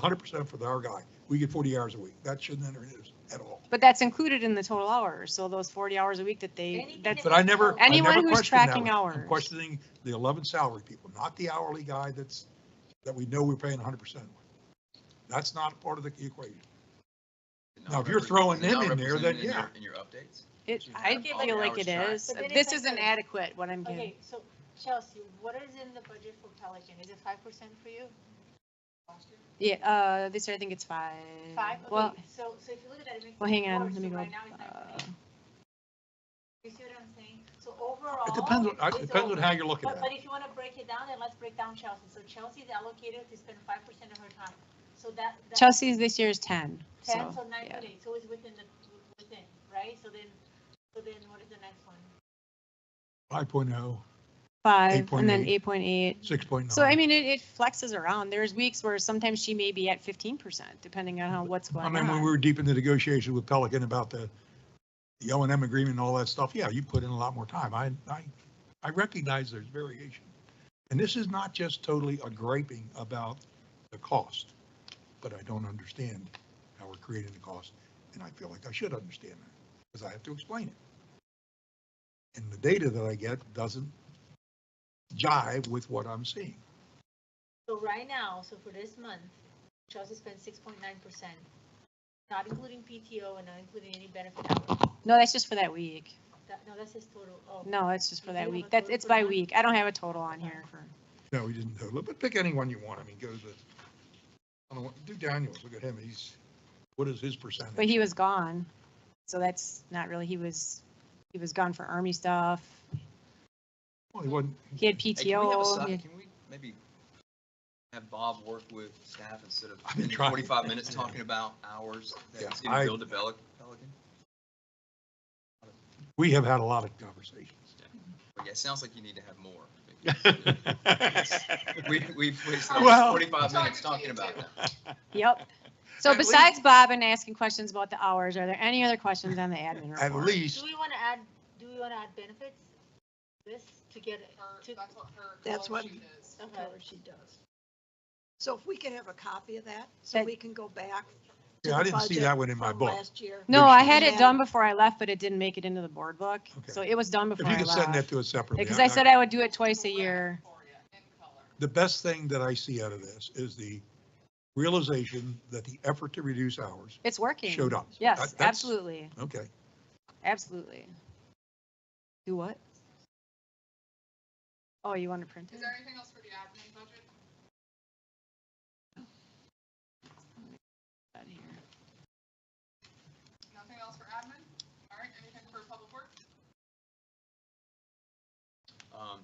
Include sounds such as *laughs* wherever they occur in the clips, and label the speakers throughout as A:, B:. A: hundred percent for the- our guy. We get forty hours a week. That shouldn't enter his at all.
B: But that's included in the total hours, so those forty hours a week that they,
C: Anything
B: that's,
C: that-
A: But I never, I
B: Anyone
A: never
B: who's
A: questioned that.
B: tracking
A: one. I'm
B: hours.
A: questioning the eleven salary people, not the hourly guy that's, that we know we're paying hundred percent. That's not part of the equation. Now, if you're throwing them in there, then yeah.
D: In your updates?
B: it, I
C: Okay, but-
B: feel like it is.
C: But then
B: This
C: it's
B: is
C: like-
B: inadequate, what I'm getting.
C: Okay, so Chelsea, what is in the budget for Pelican? Is it five percent for you?
B: Yeah, uh, this year I think it's five.
C: Five?
B: Well,
C: Okay, so, so if you look at it, it makes.
B: well,
C: it
B: hang on,
C: four,
B: let me
C: so
B: go.
C: Right now, it's nine
B: uh,
C: point eight. You see what I'm saying? So overall.
A: It depends, on uh,
C: it's
A: it depends on
C: over.
A: how you're looking at
C: But,
A: it.
C: but if you wanna break it down, then let's break down Chelsea. So Chelsea's allocated to spend five percent of her time. So that. that-
B: Chelsea's this year is ten,
C: Ten,
B: so,
C: so nine
B: yeah.
C: point eight, so it's within the, within, right? So then, so then what is the next one?
A: Five point oh,
B: Five, and then
A: 8.8.
B: eight point eight.
A: six point nine.
B: So I mean, it, it flexes around. There's weeks where sometimes she may be at fifteen percent, depending on how, what's
A: I
B: going
A: mean, when we
B: on.
A: were deep into negotiations with Pelican about the, the O and M agreement and all that stuff, yeah, you put in a lot more time. I, I, I recognize there's variation. And this is not just totally a griping about the cost, but I don't understand how we're creating the cost. And I feel like I should understand that, because I have to explain it. And the data that I get doesn't jive with what I'm seeing.
C: So right now, so for this month, Chelsea spent six point nine percent, not including PTO and not including any benefit hours.
B: No, that's just for that week.
C: That, no, that's his total, oh.
B: No, that's just for
C: You
B: that
C: have a
B: week. That's,
C: total
B: it's
C: for
B: by
C: that?
B: week. I don't have a total on here for.
A: No, we didn't total it, but pick anyone you want. I mean, go to, I don't want, do Daniels, look at him, he's, what is his percentage?
B: But he was gone, so that's not really, he was, he was gone for army stuff.
A: Well, he wasn't,
B: He had
D: Hey, can we have a
B: PTO. he
D: si-
B: had-
D: Can we maybe have Bob work with staff instead of
A: I've been
D: spending
A: trying.
D: forty-five minutes
A: *laughs*
D: talking about hours
A: Yeah,
D: that's
A: I-
D: getting billed to Pelic- Pelican?
A: we have had a lot of conversations.
D: But yeah, it sounds like you need to have more. because
A: *laughs*
D: We, we wasted
A: Well-
D: forty-five minutes talking about that.
B: Yep. So
D: At least-
B: besides Bob and asking questions about the hours, are there any other questions on the admin
A: At
B: report?
C: Do
A: least,
C: we wanna add, do we wanna add benefits? This to get,
E: her-
C: to,
E: That's what her.
F: That's
E: cover
F: what-
E: sheet is.
C: Okay.
F: That's what she does. So if we can have a copy of that, so
B: That-
F: we can go back. to
A: yeah, I
F: the
A: didn't see
F: budget
A: that one in my
F: from
A: book.
F: Last year.
B: No, I had
F: Yeah.
B: it done before I left, but it didn't make it into the board book.
A: Okay.
B: So it was done
A: If
B: before
A: you
B: I
A: could send that
B: left.
A: to us separately.
B: Because I said I would do it twice a year.
E: For you, in color.
A: The best thing that I see out of this is the realization that the effort to reduce hours
B: It's working.
A: showed up. That-
B: Yes,
A: that's-
B: absolutely,
A: Okay,
B: absolutely. Do what? Oh, you want to print
E: Is
B: it?
E: there anything else for the admin budget?
B: Out here.
E: Nothing else for admin? All right, anything for public works?
D: Um,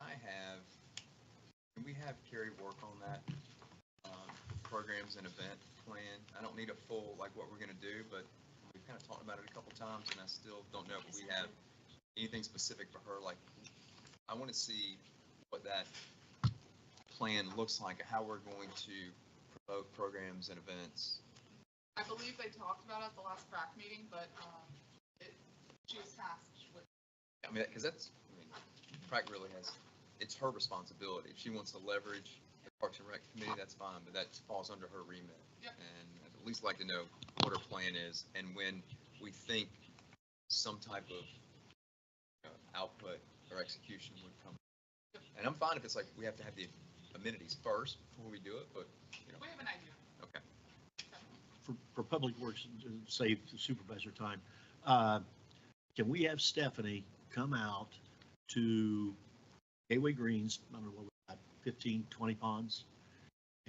D: I have, can we have Carrie work on that? um, Programs and event plan. I don't need a full, like what we're gonna do, but we've kind of talked about it a couple times and I still don't know if we have anything specific for her, like, I want to see what that plan looks like, how we're going to promote programs and events.
E: I believe they talked about it at the last crack meeting, but, um, it, she was tasked with.
D: I mean, because that's, I mean, Prac really has, it's her responsibility. If she wants to leverage the Parks and Rec Committee, that's fine, but that falls under her remit.
E: Yep.
D: And I'd at least like to know what her plan is and when we think some type of you know, output or execution would come. And I'm fine if it's like, we have to have the amenities first before we do it, but,
E: We have an idea.
D: okay.
G: for, for Public Works, uh, save supervisor time, uh, can we have Stephanie come out to Gateway Greens, I don't know, what, we got, 15, 20 ponds,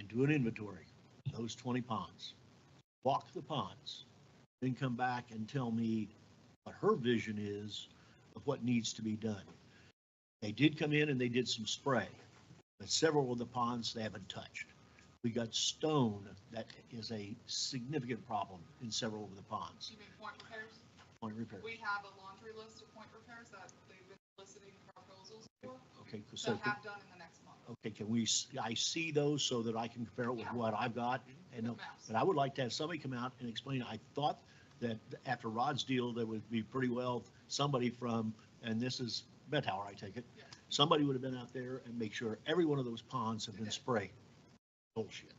G: and do an inventory, of those 20 ponds, walk the ponds, then come back and tell me what her vision is of what needs to be done. They did come in and they did some spray, but several of the ponds they haven't touched. We got stone, that is a significant problem in several of the ponds,
E: She made point repairs.
G: point repair.
E: We have a laundry list of point repairs that they've been soliciting proposals for,
G: Okay, so,
E: that
G: can-
E: have done in the next month.
G: okay, can we, s- I see those so that I can compare it with what I've got? And,
E: With
G: no-
E: maps.
G: but I would like to have somebody come out and explain, I thought that after Rod's deal, there would be pretty well somebody from, and this is Bethauer, I take it,
E: Yes.
G: somebody would have been out there and make sure every one of those ponds have been sprayed. Bullshit.